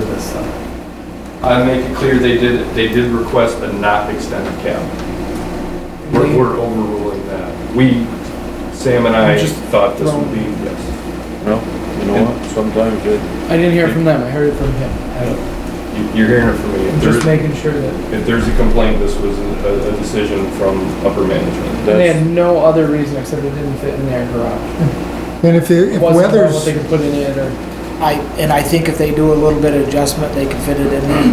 so. I make it clear they did, they did request a not extended cap. We're, we're overruling that. We, Sam and I Just thought this would be, yes. No, you know what, sometimes it, I didn't hear it from them, I heard it from him. I- You- You're hearing it from I'm me. If just there's, making sure that, if there's a complaint, this was a, a decision from upper management. and they that's, had no other reason except it didn't fit in their garage. And if, the- It if wasn't about what weather's, they could put in it or, I, and I think if they do a little bit of adjustment, they can fit it in there.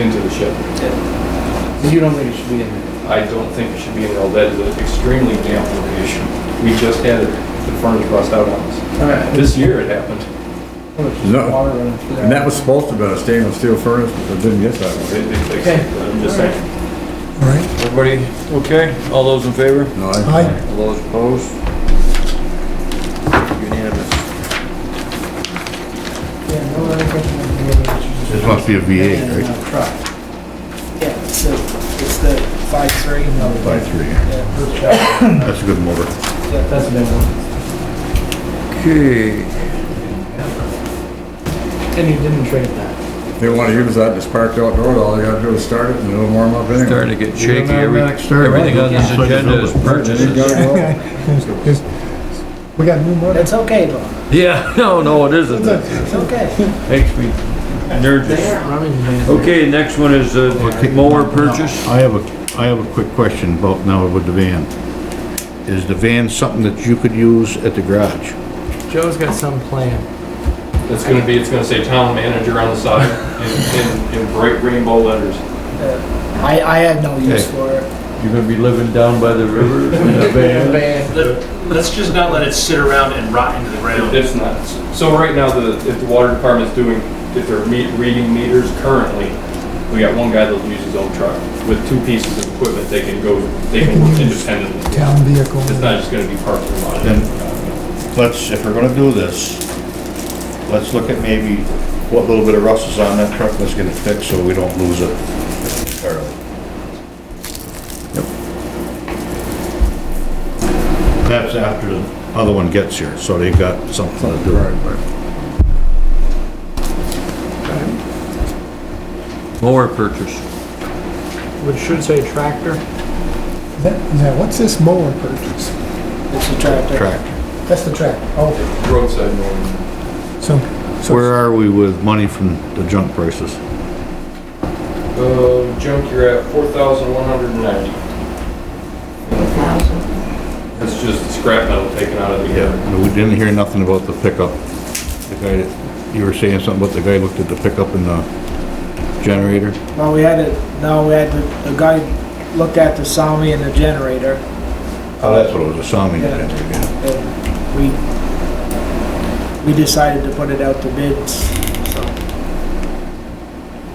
Into the ship. you don't think it should be in there. I don't think it should be in L, that is an extremely damp location. We just had it, the furnace bust out on us. Alright. This year it happened. No. Water running through there. And that was supposed to have been a stainless steel furnace, but it didn't get that way. They- they fixed Okay. it, but I'm just saying. right, everybody, okay, all those in favor? No, I, I, All those opposed? Unanimous. Yeah, no other question than the other issues. This must be a And, V8, uh, right? truck. Yeah, it's the, it's the five three. by three. That's a good motor. That's a big one. Okay, And you didn't trade that. If They wanna use that, just parked outdoors, all you gotta do is start it and it'll warm up anyway. starting to get shaky, every, Automatic start. everything on this Yeah. agenda is purchases. just- we got new money. It's okay, Bob, Yeah, no, no, it isn't, It it's okay. makes me nervous. Okay, next one is a mower purchase. I have a, I have a quick question about now with the van. Is the van something that you could use at the garage? Joe's got some plan. It's gonna be, it's gonna say town manager on the side in, in, in bright rainbow letters. I, I have no use Hey. for it. You're gonna be living down by the river in a van? Bad. Let- Let's just not let it sit around and rot into the ground. It's not, so right now, the, if the water department's doing, if they're meet, reading meters currently, we got one guy that'll use his own truck. With two pieces of equipment, they can go, they can work independently. Town vehicle. It's not just gonna be parked in the lot. Let's, if we're gonna do this, let's look at maybe what little bit of rust is on that truck, let's get it fixed so we don't lose it entirely. That's after the other one gets here, so they got something to do. Mower purchase. Which should say tractor. Is that- is that- what's this mower purchase? It's a tractor. Tractor. That's the tractor, oh, Roadside mowing. so, so Where are we with money from the junk prices? Uh, junk, you're at four thousand one hundred and ninety. That's just the scrap metal taken out of the air. No, We didn't hear nothing about the pickup. The guy, that- you were saying something about the guy looked at the pickup and the generator? Well, we had it, no, we had, the the guy looked at the Sami and the generator, Oh, that's what it was, a Sami Yeah. generator, yeah. and we, we decided to put it out to bids, so.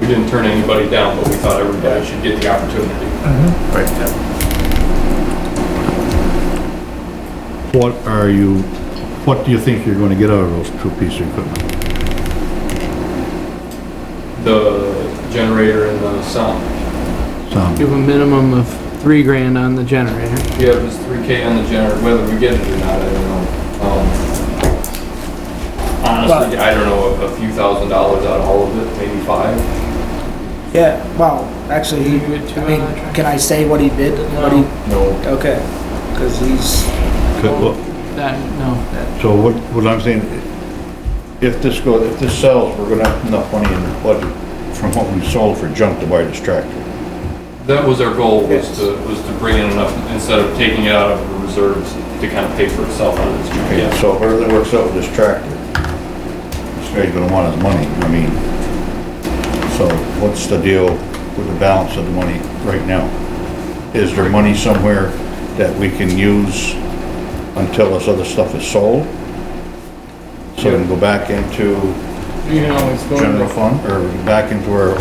We didn't turn anybody down, but we thought everybody should get the opportunity. What are you, what do you think you're gonna get out of those two pieces of equipment? The generator and the sound. Sami, a minimum of three grand on the generator. Yeah, it was three K on the generator, whether we get it or not, I don't know. Um, Honestly, I don't know, a- a few thousand dollars out of all of it, maybe five. Yeah, well, actually, he, You would too, I mean, uh, try- can I say what he bid? What he, No, okay, because he's, Could- well, That, no. so what, what I'm saying, if this goes, if this sells, we're gonna have enough money in the budget from what we sold for junk to buy this tractor. that was our goal, was to, was to bring in enough, instead of taking it out of the reserves to kind of pay for itself on this. Okay, Yeah. so whatever that works out with this tractor, this guy's gonna want his money, I mean, so what's the deal with the balance of the money right now? Is there money somewhere that we can use until this other stuff is sold? So we can go back into You can always go. general fund, or back into our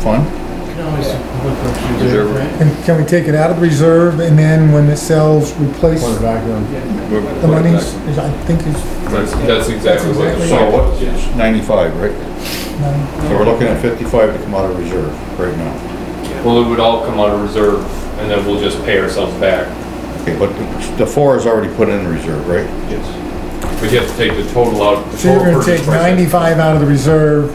fund? You can always look what you Reserve. did, right? can, can we take it out of reserve and then when it sells, replace Put it back on. the monies? Is- I think it's, That's, that's exactly what. the So plan what, was, yeah. it's ninety-five, right? no, So we're looking at fifty-five to come out of reserve right now. Well, it would all come out of reserve, and then we'll just pay ourselves back. Okay, but the- the four is already put in reserve, right? Yes. But you have to take the total out. the so you're total gonna purchase take price. ninety-five out of the reserve